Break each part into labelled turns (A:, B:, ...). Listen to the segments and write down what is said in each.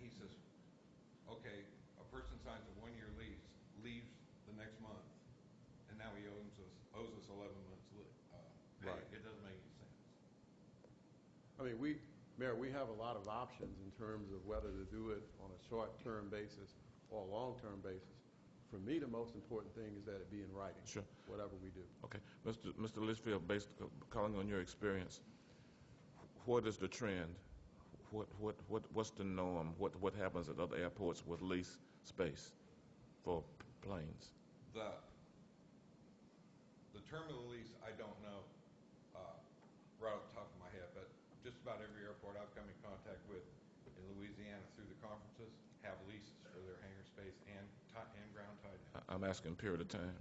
A: lease is, okay, a person signs a one-year lease, leaves the next month, and now he owes us, owes us 11 months, li- uh, pay.
B: Right.
A: It doesn't make any sense.
B: I mean, we, Mayor, we have a lot of options in terms of whether to do it on a short-term basis or a long-term basis. For me, the most important thing is that it be in writing.
C: Sure.
B: Whatever we do.
C: Okay, Mr. Mr. Litchfield, based, calling on your experience, what is the trend? What, what, what, what's the norm? What, what happens at other airports with lease space for p- planes?
A: The, the term of the lease, I don't know uh, right off the top of my head, but just about every airport I've come in contact with in Louisiana through the conferences have leases for their hangar space and, ti- and ground tie down.
C: I- I'm asking period of time.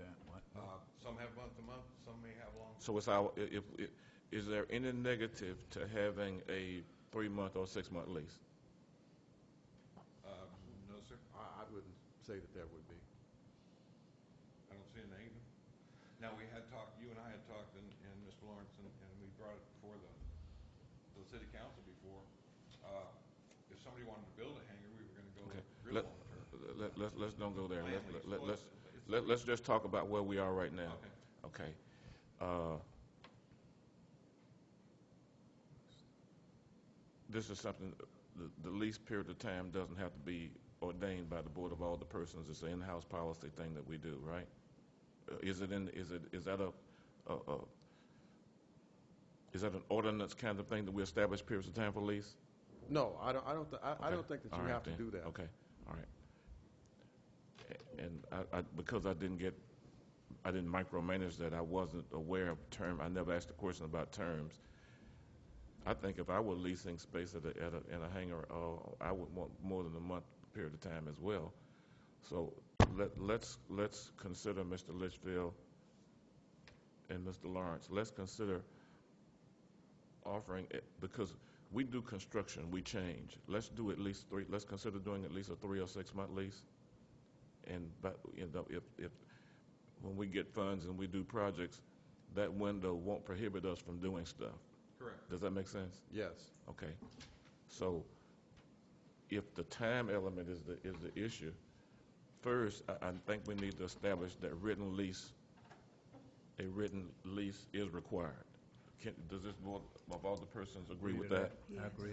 A: Uh, Some have month-to-month, some may have long.
C: So it's our, i- if, i- is there any negative to having a three-month or six-month lease?
A: Uh, No, sir,
B: I, I wouldn't say that there would be.
A: I don't see an either. Now, we had talked, you and I had talked, and, and Mr. Lawrence, and, and we brought it before the, the city council before. Uh, If somebody wanted to build a hangar, we were gonna go
C: Okay,
A: real
C: let,
A: long-term.
C: let, let's, let's don't go there.
A: Land lease.
C: Let's, let-
A: Well,
C: let's,
A: it's-
C: let- let's just talk about where we are right now.
A: Okay.
C: Okay. Uh, This is something, the, the lease period of time doesn't have to be ordained by the Board of all the persons. It's an in-house policy thing that we do, right? Uh, Is it in, is it, is that a, a, a, is that an ordinance kind of thing that we establish periods of time for lease?
B: No, I don't, I don't, thi- I, I
C: Okay.
B: don't think that
C: All
B: you
C: right
B: have to
C: then.
B: do that.
C: Okay, all right. A- And I, I, because I didn't get, I didn't micromanage that, I wasn't aware of term, I never asked a question about terms. I think if I were leasing space at a, at a, in a hangar, uh, I would want more than a month period of time as well. So let, let's, let's consider Mr. Litchfield and Mr. Lawrence, let's consider offering, it- because we do construction, we change. Let's do at least three, let's consider doing at least a three or six-month lease. And, but, you know, if, if, when we get funds and we do projects, that window won't prohibit us from doing stuff.
A: Correct.
C: Does that make sense?
B: Yes.
C: Okay. So if the time element is the, is the issue, first, I, I think we need to establish that written lease, a written lease is required. Can, does this board, of all the persons agree with that?
D: I agree.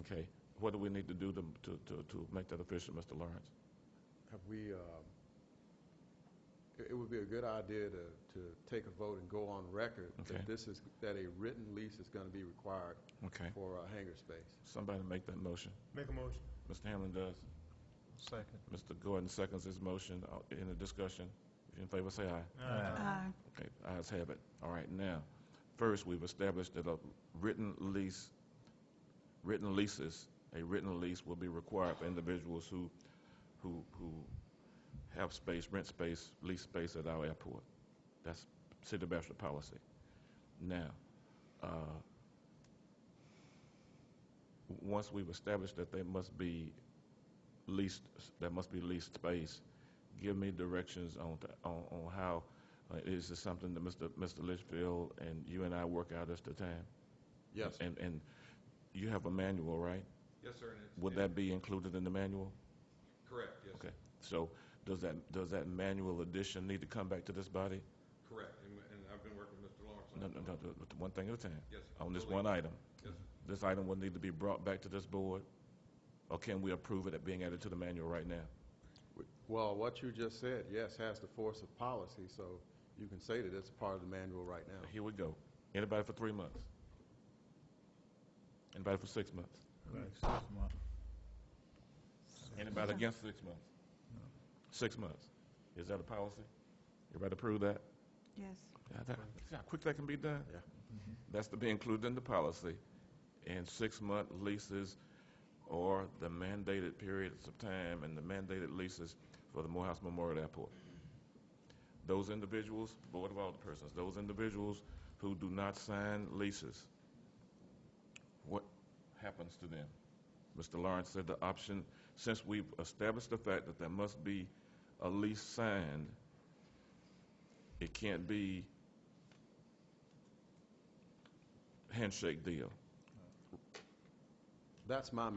C: Okay. What do we need to do to, to, to, to make that official, Mr. Lawrence?
B: Have we, um, it it would be a good idea to, to take a vote and go on record
C: Okay.
B: that this is, that a written lease is going to be required
C: Okay.
B: for a hangar space.
C: Somebody make that motion.
D: Make a motion.
C: Mr. Hamlin does.
D: Second.
C: Mr. Gordon seconds his motion. Uh, Any discussion? If you're in favor, say aye.
A: Uh,
E: Aye.
C: Okay, ayes have it. All right, now, first, we've established that a written lease, written leases, a written lease will be required for individuals who, who, who have space, rent space, lease space at our airport. That's city of Bastrop policy. Now, uh, w- once we've established that they must be leased, there must be leased space, give me directions on, th- on, on how, uh, is this something that Mr. Mr. Litchfield and you and I work out as the time?
B: Yes.
C: And, and you have a manual, right?
A: Yes, sir, and it's.
C: Would that be included in the manual?
A: Correct, yes,
C: Okay, so does that, does that manual addition need to come back to this body?
A: correct, and, and I've been working with Mr. Lawrence. on
C: No, no,
A: it.
C: no, no, one thing at a time.
A: Yes, sir.
C: On this one item.
A: Yes, sir.
C: This item will need to be brought back to this board, or can we approve it at being added to the manual right now?
B: Well, what you just said, yes, has the force of policy, so you can say that it's part of the manual right now.
C: Here we go. Anybody for three months? Anybody for six months? Anybody against six months? Six months. Is that a policy? Everybody approve that?
E: Yes.
C: Yeah, that- See how quick that can be done?
B: Yeah.
C: That's to be included in the policy. And six-month leases or the mandated periods of time and the mandated leases for the Morehouse Memorial Airport. Those individuals, Board of Alderpersons, those individuals who do not sign leases, what happens to them? Mr. Lawrence said the option, since we've established the fact that there must be a lease signed, it can't be handshake deal.
B: That's my